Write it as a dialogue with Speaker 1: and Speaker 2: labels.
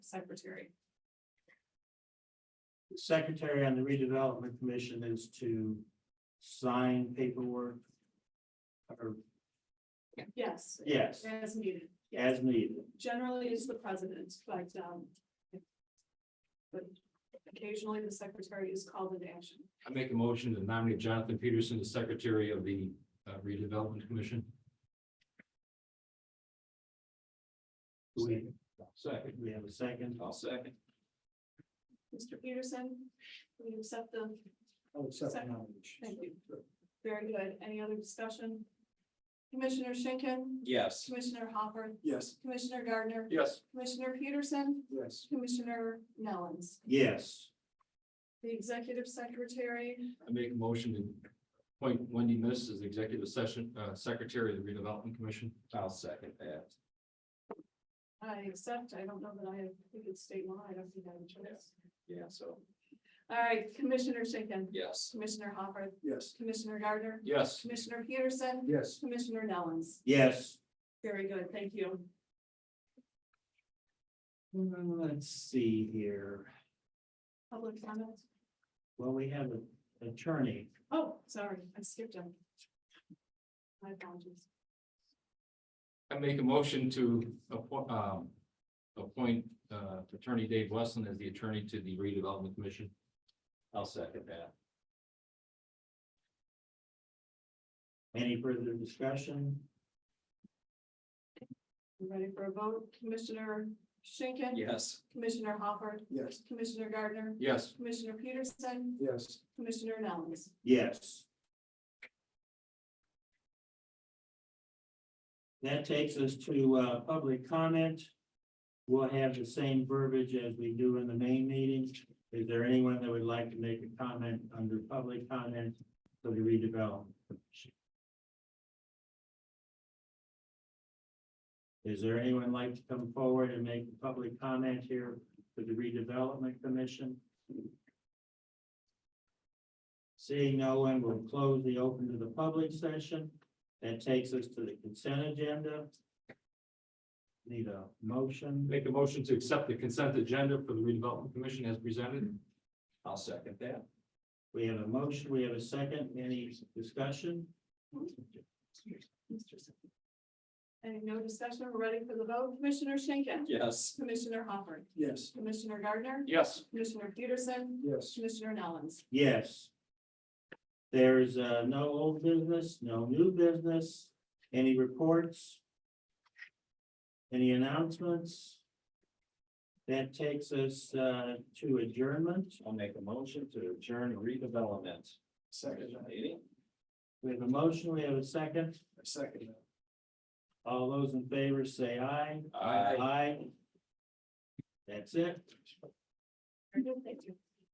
Speaker 1: secretary.
Speaker 2: Secretary on the redevelopment commission is to sign paperwork. Or,
Speaker 1: Yes,
Speaker 2: yes,
Speaker 1: as needed. Yes.
Speaker 2: as needed.
Speaker 1: Generally is the president, but, um, but occasionally the secretary is called into action.
Speaker 3: I make a motion to nominate Jonathan Peterson as Secretary of the uh, Redevelopment Commission.
Speaker 2: Do We,
Speaker 3: Second.
Speaker 2: we have a second.
Speaker 3: I'll second.
Speaker 1: Mr. Peterson, will you accept the,
Speaker 2: Oh,
Speaker 1: second thank you. Very good. Any other discussion? Commissioner Schinkin,
Speaker 3: Yes.
Speaker 1: Commissioner Hopper,
Speaker 3: Yes.
Speaker 1: Commissioner Gardner,
Speaker 3: Yes.
Speaker 1: Commissioner Peterson,
Speaker 3: Yes.
Speaker 1: Commissioner Nellens.
Speaker 2: Yes,
Speaker 1: The executive secretary,
Speaker 3: I make a motion to appoint Wendy Miss as Executive Session, uh, Secretary of the Redevelopment Commission. I'll second that.
Speaker 1: I accept. I don't know that I have, I think it's state law. I don't think I have a choice.
Speaker 3: Yeah, so,
Speaker 1: All right, Commissioner Schinkin,
Speaker 3: yes.
Speaker 1: Commissioner Hopper,
Speaker 3: Yes.
Speaker 1: Commissioner Gardner,
Speaker 3: Yes.
Speaker 1: Commissioner Peterson,
Speaker 3: Yes.
Speaker 1: Commissioner Nellens.
Speaker 2: yes.
Speaker 1: Very good. Thank you.
Speaker 2: Hmm, Let's see here.
Speaker 1: Public comment.
Speaker 2: Well, we have an attorney.
Speaker 1: Oh, sorry, I skipped him. My apologies.
Speaker 3: I make a motion to appoint, um, appoint, uh, Attorney Dave Wesson as the attorney to the Redevelopment Commission. I'll second that.
Speaker 2: Any further discussion?
Speaker 1: You Ready for a vote? Commissioner Schinkin.
Speaker 3: Yes.
Speaker 1: Commissioner Hopper,
Speaker 3: Yes.
Speaker 1: Commissioner Gardner,
Speaker 3: Yes.
Speaker 1: Commissioner Peterson,
Speaker 3: Yes.
Speaker 1: Commissioner Nellens.
Speaker 2: Yes. That takes us to uh, public comment. We'll have the same verbiage as we do in the main meeting. Is there anyone that would like to make a comment under public comment for the redevelopment? Is there anyone like to come forward and make a public comment here for the redevelopment commission? Seeing no one, we'll close the open to the public session. That takes us to the consent agenda. Need a motion.
Speaker 3: Make a motion to accept the consent agenda for the redevelopment commission as presented. I'll second that.
Speaker 2: We have a motion, we have a second. Any discussion?
Speaker 1: Any no discussion? We're ready for the vote. Commissioner Schinkin.
Speaker 3: Yes.
Speaker 1: Commissioner Hopper,
Speaker 3: Yes.
Speaker 1: Commissioner Gardner,
Speaker 3: Yes.
Speaker 1: Commissioner Peterson,
Speaker 3: Yes.
Speaker 1: Commissioner Nellens.
Speaker 2: Yes. There's uh, no old business, no new business. Any reports? Any announcements? That takes us uh, to adjournment.
Speaker 3: I'll make a motion to adjourn redevelopment. Second. Meeting.
Speaker 2: We have a motion, we have a second.
Speaker 3: Second.
Speaker 2: All those in favor say aye.
Speaker 3: Aye.
Speaker 2: Aye. That's it.
Speaker 1: Very good. Thank you.